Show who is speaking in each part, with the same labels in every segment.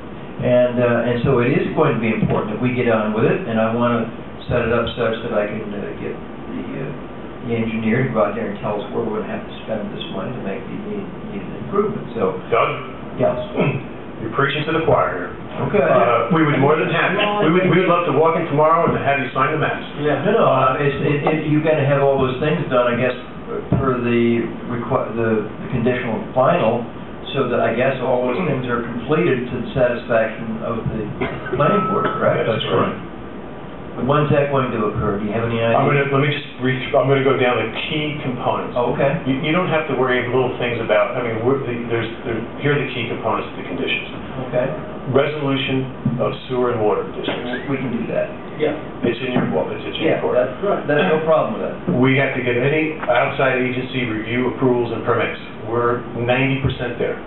Speaker 1: And, uh, and so it is going to be important that we get on with it, and I want to set it up such that I can uh, get the, uh, the engineer to go out there and tell us where we're going to have to spend this money to make the needed- needed improvement, so,
Speaker 2: Doug,
Speaker 1: yes.
Speaker 2: you're preaching to the choir here.
Speaker 1: Okay.
Speaker 2: Uh, We would more than happy, we would, we would love to walk in tomorrow and have you sign the maps.
Speaker 1: Yeah, no, no, uh, it's, it, it, you gotta have all those things done, I guess, per the requ- the, the conditional final, so that I guess all those things are completed to the satisfaction of the planning board, correct?
Speaker 2: That's right.
Speaker 1: When's that going to occur? Do you have any idea?
Speaker 2: I'm gonna, let me just re, I'm gonna go down the key components.
Speaker 1: Oh, Okay,
Speaker 2: You, you don't have to worry of little things about, I mean, we're, the- there's, there, here are the key components of the conditions.
Speaker 1: okay,
Speaker 2: Resolution of sewer and water districts.
Speaker 1: we can do that.
Speaker 2: It's in your, well, it's in your
Speaker 1: Yeah,
Speaker 2: court.
Speaker 1: that's, that's no problem with that.
Speaker 2: We have to get any outside agency review approvals and permits. We're ninety percent there.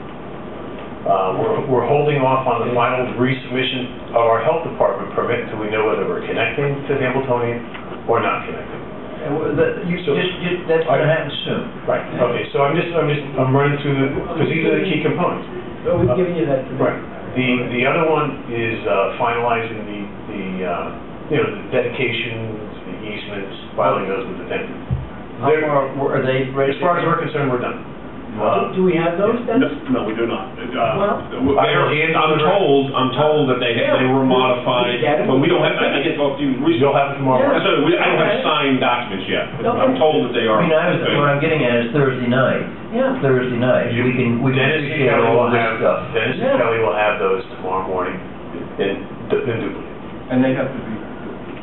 Speaker 2: Uh, we're, we're holding off on the final resubmission of our health department permit until we know whether we're connecting to the Hamiltonian or not connecting.
Speaker 1: And wha- that, you,
Speaker 2: So-
Speaker 1: just, you- that's gonna happen soon.
Speaker 2: Right. Okay, so I'm just, I'm just, I'm running through the, because these are the key components.
Speaker 3: So we've given you that today.
Speaker 2: Right. The, the other one is uh, finalizing the, the, uh, you know, the dedications, the easements, filing those with the tenant.
Speaker 1: How
Speaker 2: They're-
Speaker 1: far, were- are they ready?
Speaker 2: As far as
Speaker 1: to-
Speaker 2: we're concerned, we're done.
Speaker 3: Do- Do we have those then?
Speaker 4: No, no, we do not. Uh,
Speaker 3: Well-
Speaker 4: they're- I'm told, I'm told that they, they were
Speaker 3: Yeah.
Speaker 4: modified, but we don't have, I I didn't talk to you
Speaker 2: Uh, You'll
Speaker 4: recently.
Speaker 2: have it tomorrow.
Speaker 4: I said, we- I don't
Speaker 3: Okay.
Speaker 4: have signed documents yet.
Speaker 3: Okay.
Speaker 4: I'm told that they
Speaker 1: I
Speaker 4: are.
Speaker 1: mean, I was, what I'm getting at is Thursday night.
Speaker 3: Yeah.
Speaker 1: Thursday night, we can, we can
Speaker 2: Dennis
Speaker 1: appreciate
Speaker 2: and Kelly
Speaker 1: all
Speaker 2: will
Speaker 1: this
Speaker 2: have,
Speaker 1: stuff.
Speaker 2: Dennis and
Speaker 3: Yeah.
Speaker 2: Kelly will have those tomorrow morning in, in duplicate.
Speaker 5: And they have to be,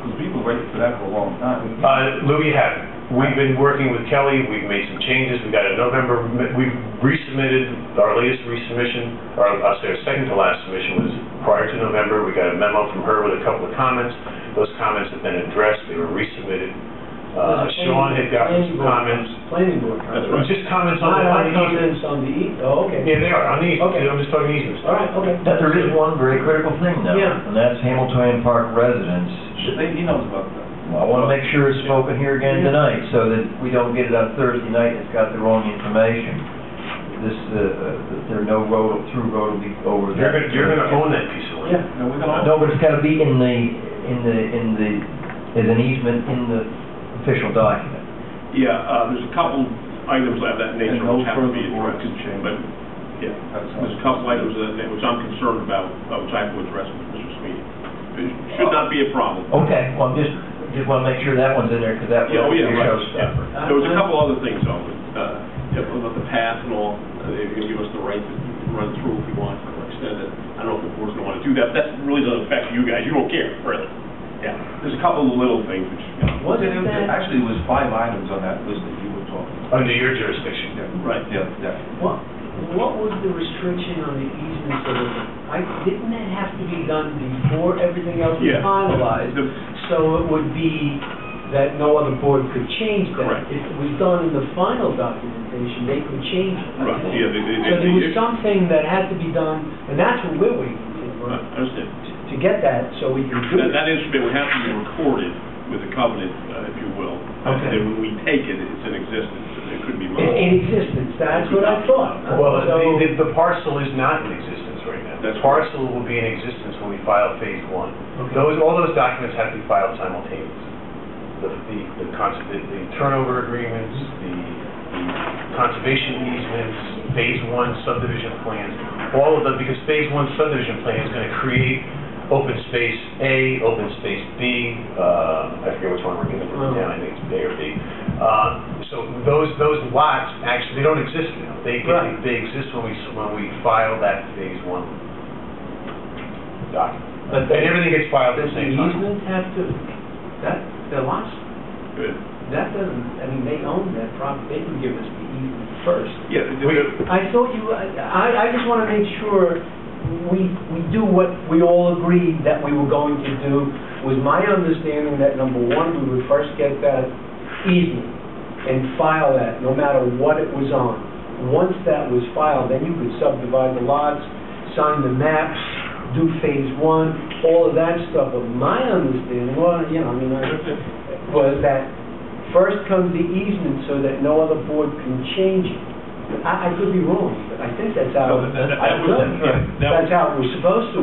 Speaker 5: because we've been waiting for that for a long time.
Speaker 2: Uh, Louis had it. We've been working with Kelly, we've made some changes, we got a November, we've resubmitted, our latest resubmission, or I'll say our second to last submission was prior to November, we got a memo from her with a couple of comments. Those comments have been addressed, they were resubmitted. Uh, Sean had gotten some comments,
Speaker 3: Planning board.
Speaker 2: It
Speaker 4: That's
Speaker 2: was
Speaker 3: comments.
Speaker 2: just comments on
Speaker 3: Not
Speaker 2: the, on
Speaker 3: our
Speaker 2: the easement.
Speaker 3: comments on the E, oh, okay.
Speaker 2: Yeah, they are, on the easement,
Speaker 3: Okay.
Speaker 2: I'm just talking easements.
Speaker 3: All right, okay.
Speaker 1: But there is one very critical thing though,
Speaker 3: Yeah.
Speaker 1: and that's Hamiltonian Park residents.
Speaker 5: They, he knows about that.
Speaker 1: I want to make sure it's spoken here again
Speaker 3: Yeah.
Speaker 1: tonight, so that we don't get it on Thursday night and it's got the wrong information. This, uh, uh, that there are no road, through road will be over
Speaker 2: You're
Speaker 1: there.
Speaker 2: gonna, you're gonna own that piece of land.
Speaker 3: Yeah.
Speaker 5: No, we're gonna.
Speaker 1: No, but it's got to be in the, in the, in the, as an easement in the official document.
Speaker 4: Yeah, uh, there's a couple items of that
Speaker 5: nature And no which have to be further board addressed, can change. but,
Speaker 4: yeah,
Speaker 5: That's all.
Speaker 4: There's a couple items that, that- which I'm concerned about, uh, which I will address with Mr. Sweeney. It should not be a problem.
Speaker 1: Okay, well, I'm just, just want to make sure that one's in there, because that
Speaker 4: Yeah, oh,
Speaker 1: would be a
Speaker 4: yeah, right,
Speaker 1: showstopper.
Speaker 4: yeah. There was a couple other things on, uh, yeah, about the path and all, uh, they're gonna give us the right to run through if we want, or extend it. I don't know if the board's gonna wanna do that, but that really doesn't affect you guys, you don't care, really. Yeah, there's a couple of little things which, you know,
Speaker 5: Was it,
Speaker 3: Wasn't that,
Speaker 5: actually, it was five items on that list that you were talking about.
Speaker 2: Under your jurisdiction.
Speaker 4: Right.
Speaker 5: Yeah, yeah.
Speaker 3: what, what was the restriction on the easement so that, I, didn't that have to be done before everything else was
Speaker 4: yeah.
Speaker 3: finalized?
Speaker 4: The-
Speaker 3: So it would be that no other board could change that.
Speaker 4: Correct.
Speaker 3: If it was done in the final documentation, they could change it.
Speaker 4: Right, yeah, they, they,
Speaker 3: So
Speaker 4: they.
Speaker 3: there was something that had to be done, and that's what we're waiting for,
Speaker 4: Right, I understand.
Speaker 3: to get that, so we can do
Speaker 4: That,
Speaker 3: it.
Speaker 4: that instrument would have to be recorded with a covenant, uh, if you will.
Speaker 1: Okay.
Speaker 4: And then when we take it, it's in existence, and it could be
Speaker 3: In, in
Speaker 4: modified.
Speaker 3: existence, that's what I thought.
Speaker 2: Well,
Speaker 3: So-
Speaker 2: the- the, the parcel is not in existence right now. The
Speaker 4: That's correct.
Speaker 2: parcel will be in existence when we file phase one.
Speaker 3: Okay.
Speaker 2: Those, all those documents have to be filed simultaneously. The, the, the cons- the the turnover agreements, the the conservation easements, phase one subdivision plans, all of them, because phase one subdivision plan is gonna create open space A, open space B, uh, I forget which one we're gonna put down, I think it's A or B. Uh, so those, those lots, actually, they don't exist now. They, they,
Speaker 3: Right.
Speaker 2: they exist when we, s- when we file that phase one document.
Speaker 3: But
Speaker 2: And everything gets filed at the
Speaker 3: Does the
Speaker 2: same time.
Speaker 3: easement have to, that, the lots,
Speaker 4: Good.
Speaker 3: that doesn't, I mean, they own that property, they can give us the easement first.
Speaker 4: Yeah,
Speaker 2: We-
Speaker 4: the- the-
Speaker 3: I thought you, I, I I just want to make sure we, we do what we all agreed that we were going to do. Was my understanding that number one, we would first get that easement and file that, no matter what it was on. Once that was filed, then you could subdivide the lots, sign the maps, do phase one, all of that stuff. But my understanding, well, you know, I mean, I was that first comes the easement so that no other board can change it. I, I could be wrong, but I think that's how,
Speaker 4: No, that- that- that
Speaker 3: I could.
Speaker 4: was- yeah, that was-
Speaker 3: that's how it was supposed to